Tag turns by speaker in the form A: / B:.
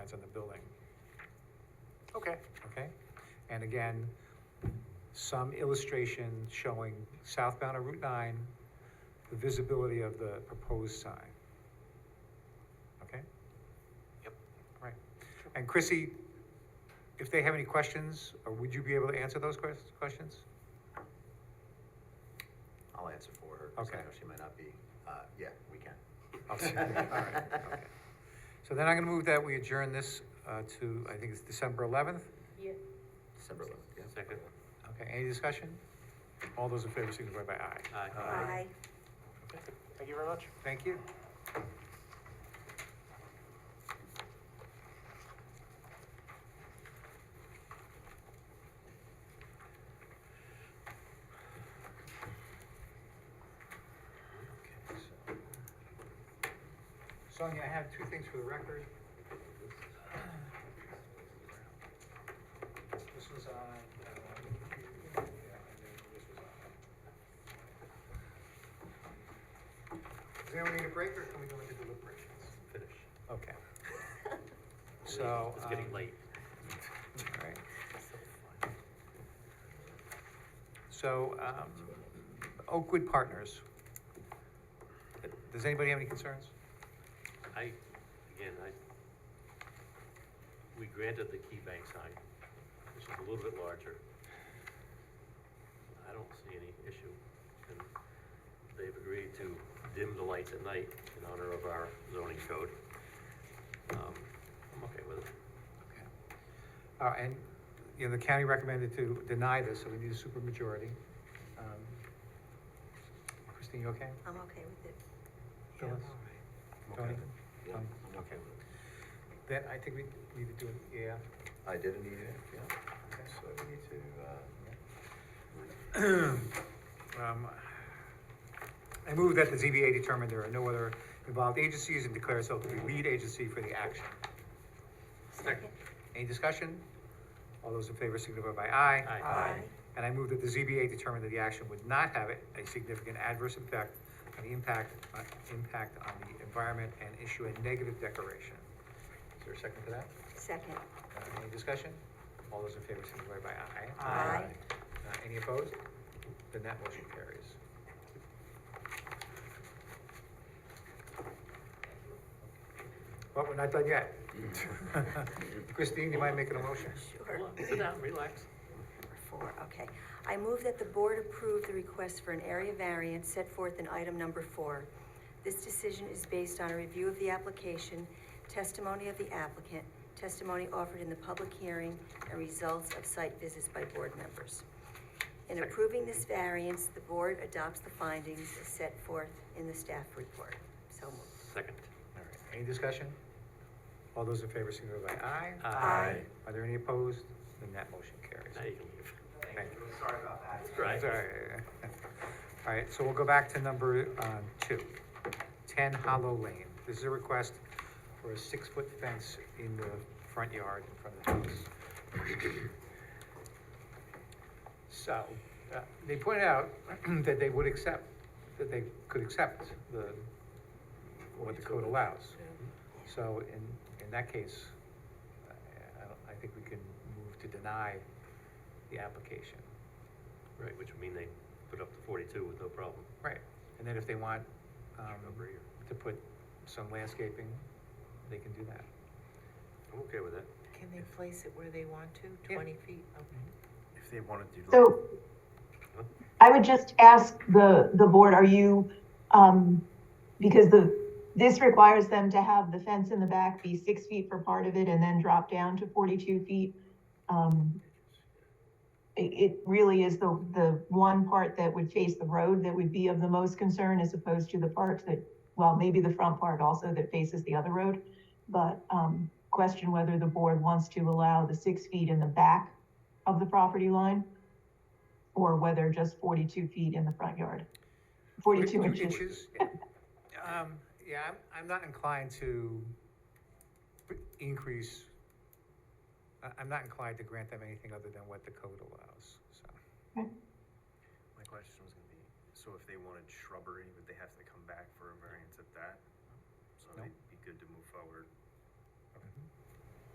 A: what's in the building. Okay,
B: okay? And again, some illustration showing southbound of Route 9, the visibility of the proposed sign. Okay?
A: Yep.
B: Right. And Chrissy, if they have any questions, or would you be able to answer those ques- questions?
C: I'll answer for her, because I
B: Okay.
C: know she might not be, uh, yeah, we can.
B: I'll see. All right, okay. So then I'm going to move that we adjourn this uh, to, I think it's December 11th?
D: Yeah.
C: December eleventh, yeah.
A: second,
B: Okay, any discussion? All those in favor signify by aye.
A: aye.
D: Aye.
A: Thank you very much.
B: Thank you.
C: Okay, so-
B: Sonia, I have two things for the record. This was on. uh, yeah, and then this was on. Does anyone need a break or can we go into deliberations?
A: Finish.
B: Okay. So.
A: It's getting
B: um,
A: late.
B: all right. So, um, Oakwood Partners. Does anybody have any concerns?
A: I, again, I, we granted the key bank sign, which is a little bit larger. I don't see any issue, and they've agreed to dim the lights at night in honor of our zoning code. Um, I'm okay with it.
B: Okay. Uh, and, you know, the county recommended to deny this, so we need a supermajority. Um, Christine, you okay?
D: I'm okay with it.
B: Phyllis?
C: I'm okay
B: Tony?
C: with it. Yeah,
B: Um,
C: I'm okay with it.
B: Then I think we need to do an EAF.
C: I did an EAF, yeah, so we need to, uh,
B: Um, I move that the ZBA determine there are no other involved agencies and declare itself to be lead agency for the action.
A: Second.
B: Any discussion? All those in favor signify by aye.
A: Aye.
D: Aye.
B: And I move that the ZBA determine that the action would not have a significant adverse impact on the impact, uh, impact on the environment and issue a negative declaration. Is there a second to that?
D: Second.
B: Uh, Any discussion? All those in favor signify by aye.
D: Aye.
B: Uh, Any opposed? Then that motion carries. Well, we're not done yet. Christine, you mind making a motion?
D: Sure.
A: Hold on, sit down, relax.
D: Number four, okay. I move that the board approve the request for an area variance set forth in item number four. This decision is based on a review of the application, testimony of the applicant, testimony offered in the public hearing, and results of site visits by board members. In
A: Second.
D: approving this variance, the board adopts the findings as set forth in the staff report. So moved.
A: Second.
B: All right, any discussion? All those in favor signify by aye.
A: Aye.
D: Aye.
B: Are there any opposed? Then that motion carries.
A: Now you can leave.
B: Thank you.
A: That's right.
B: It's all right. All right, so we'll go back to number uh, two, 10 Hollow Lane. This is a request for a six-foot fence in the front yard in front of the house. So, uh, they pointed out that they would accept, that they could accept the, what the code allows. So in, in that case, I- I, don't- I think we can move to deny the application.
A: Right, which would mean they put up the forty-two with no problem.
B: Right, and then if they want, um,
A: Over here.
B: to put some landscaping, they can do that.
A: I'm okay with that.
E: Can they place it where they want to,
B: Yeah.
E: twenty feet? Okay.
C: if they want to do.
F: So I would just ask the, the board, are you, um, because the, this requires them to have the fence in the back be six feet for part of it and then drop down to forty-two feet. Um, it, it really is the, the one part that would face the road that would be of the most concern as opposed to the part that, well, maybe the front part also that faces the other road. But, um, question whether the board wants to allow the six feet in the back of the property line or whether just 42 feet in the front yard. 42 inches.
B: Yeah. Um, yeah, I'm, I'm not inclined to b- increase, I, I'm not inclined to grant them anything other than what the code allows, so.
G: My question was gonna be, so if they wanted shrubbery, would they have to come back for a variance at that? So
B: No.
G: they'd be good to move forward